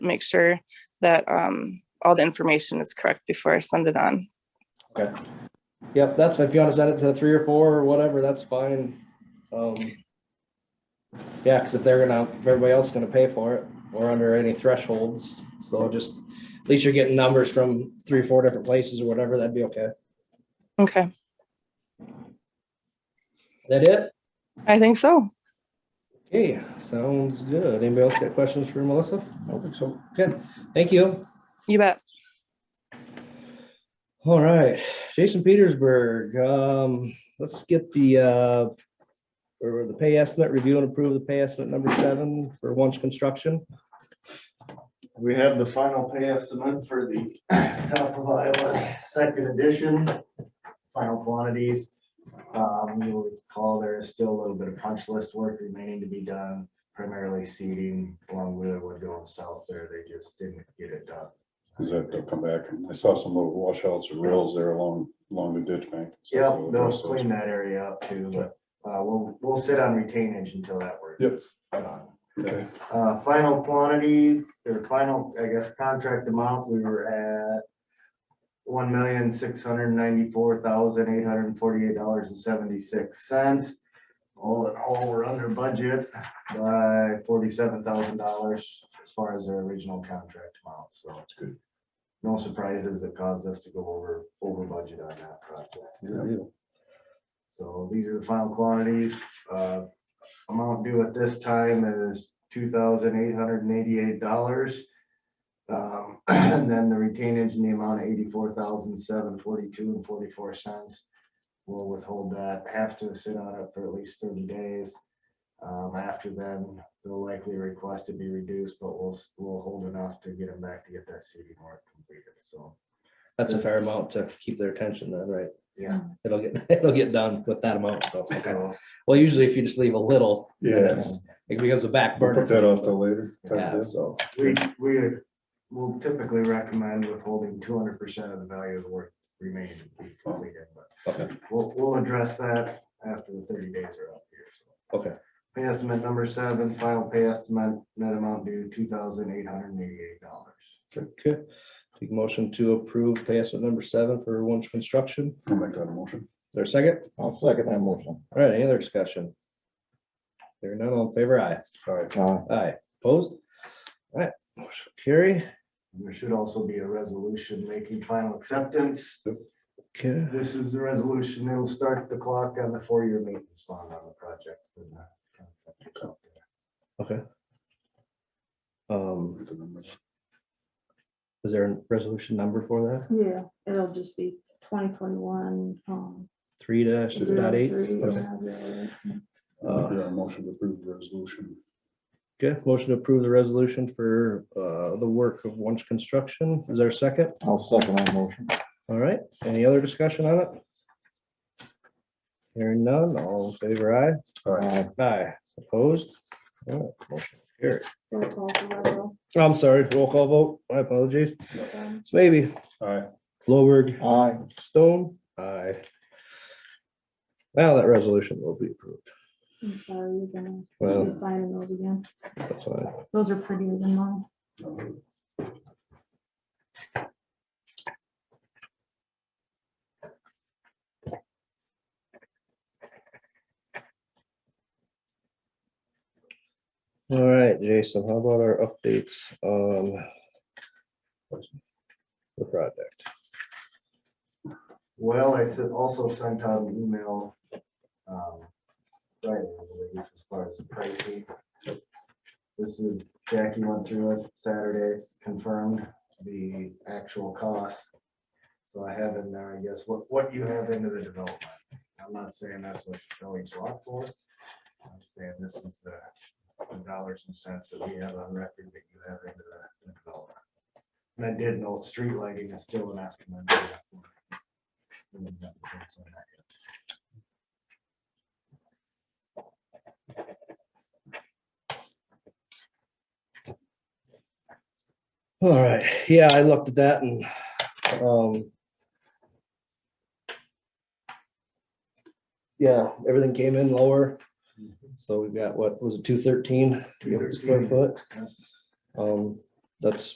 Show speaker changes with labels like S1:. S1: make sure that um, all the information is correct before I send it on.
S2: Okay. Yep, that's, if you want to set it to three or four or whatever, that's fine. Um. Yeah, because if they're gonna, if everybody else is gonna pay for it, we're under any thresholds, so just, at least you're getting numbers from three, four different places or whatever, that'd be okay.
S1: Okay,
S2: That it?
S1: I think so.
S2: Okay, sounds good. Anybody else got questions for Melissa? I don't think so. Good, thank you.
S1: You bet.
S2: All right, Jason Petersburg, um, let's get the, uh, or the pay estimate, review and approve the pay estimate number seven for Wunsch Construction.
S3: We have the final pay estimate for the top of Iowa second edition, final quantities. Um, you'll recall there is still a little bit of punch list work remaining to be done, primarily seeding along Wheelerwood going south there. They just didn't get it done.
S4: Is that they'll come back, and I saw some little washouts or rails there along, along the ditch bank. So
S3: Yep,
S4: we'll
S3: they'll
S4: address those.
S3: clean that area up too, but, uh, we'll, we'll sit on retainage until that work
S4: Yep.
S3: is done.
S4: Okay,
S3: Uh, final quantities, or final, I guess, contract amount, we were at one million, six hundred ninety-four thousand, eight hundred forty-eight dollars and seventy-six cents. All in all, we're under budget by forty-seven thousand dollars as far as our original contract amount, so. it's good. No surprises that caused us to go over, over budget on that project. So these are the final quantities. Uh, Amount due at this time is two thousand eight hundred and eighty-eight dollars. Um, And then the retainage in the amount of eighty-four thousand seven forty-two and forty-four cents. We'll withhold that, have to sit on it for at least thirty days. Um, After then, they'll likely request to be reduced, but we'll, s- we'll hold enough to get them back to get that CD work completed, so.
S2: That's a fair amount to keep their attention then, right?
S3: Yeah.
S2: It'll get, it'll get done with that amount, so. okay.
S3: so,
S2: Well, usually if you just leave a little,
S4: yeah,
S2: it becomes a back
S4: we'll
S2: burner.
S4: put that off till later. type of
S2: Yeah,
S4: deal.
S2: so,
S3: We, we will typically recommend withholding two hundred percent of the value of the work remaining to be completed, but
S2: okay,
S3: we'll, we'll address that after the thirty days are up here. so.
S2: okay,
S3: Pay estimate number seven, final pay estimate, net amount due two thousand eight hundred and eighty-eight dollars.
S2: okay. Take motion to approve pay estimate number seven for Wunsch Construction. Is
S4: I'll make that a motion.
S2: there a second?
S5: I'll second that motion.
S2: All right, any other discussion? There are none, all in favor, aye.
S4: All right,
S5: Uh,
S2: Aye, opposed? All right, motion carry.
S3: There should also be a resolution making final acceptance.
S2: Okay,
S3: This is the resolution that will start the clock on the four-year maintenance bond on the project. for the-
S2: okay. Um,
S4: Put the number.
S2: is there a resolution number for that?
S6: Yeah, it'll just be twenty twenty-one, um.
S2: Three dash dot eight? Uh,
S4: Yeah, motion to approve the resolution.
S2: Okay, motion to approve the resolution for, uh, the work of Wunsch Construction. Is there a second?
S5: I'll second that motion.
S2: All right, any other discussion on it? Hearing none, all in favor, aye.
S4: All right,
S5: Uh,
S2: Aye, opposed? All right, motion carry.
S6: Aye.
S2: I'm sorry, roll call vote. My apologies. It's maybe
S4: all right,
S2: Lowberg.
S5: Aye,
S2: Stone, aye. Now that resolution will be approved.
S6: I'm sorry, you're gonna
S2: Well-
S6: be signing those again.
S2: That's fine.
S6: Those are prettier than mine.
S2: All right, Jason, how about our updates on the project?
S3: Well, I said, also sent out an email. um, Right, I believe, as far as the pricing. This is, Jackie went through it Saturdays, confirmed the actual cost. So I have in there, I guess, what, what you have into the development. I'm not saying that's what the selling lot for. I'm saying this is the the dollars and cents that we have on record that you have into the- the development. And I did note street lighting is still an estimate.
S2: All right, yeah, I looked at that and, um, yeah, everything came in lower. So we've got, what was it, two thirteen? Square
S3: 213.
S2: foot.
S3: Yeah.
S2: Um, that's